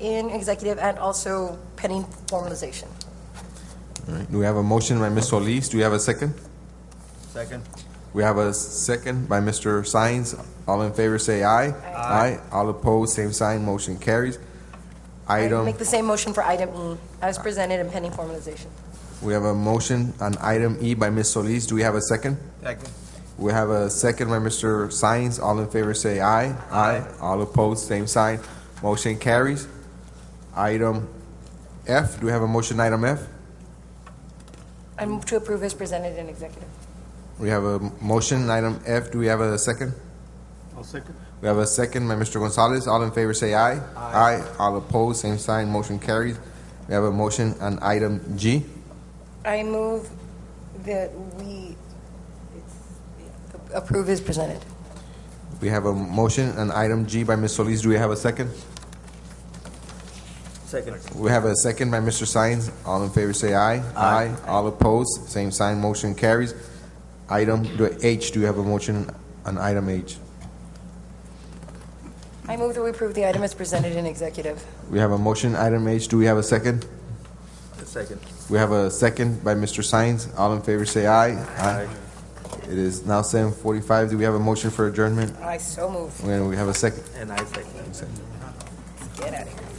in executive and also pending formalization. All right, do we have a motion by Ms. Solis? Do we have a second? Second. We have a second by Mr. Sines. All in favor, say aye. Aye. All opposed, same sign, motion carries. I Item, Make the same motion for item E as presented and pending formalization. we have a motion on item E by Ms. Solis. Do we have a second? Second. We have a second by Mr. Sines. All in favor, say aye. Aye. All opposed, same sign, motion carries. Item F, do we have a motion, item F? I move to approve as presented in executive. We have a motion, item F. Do we have a second? I'll second. We have a second by Mr. Gonzalez. All in favor say aye. Aye. All opposed, same sign, motion carries. We have a motion on item G. I move that we it's- approve as presented. We have a motion on item G by Ms. Solis. Do we have a second? Second. We have a second by Mr. Sines. All in favor say aye. Aye. All opposed, same sign, motion carries. Item do- H, do you have a motion on item H? I move that we approve the item as presented in executive. We have a motion, item H. Do we have a second? Second. We have a second by Mr. Sines. All in favor say aye. Aye. It is now seven forty-five. Do we have a motion for adjournment? I so move. And we have a second. And I second. Get out of here.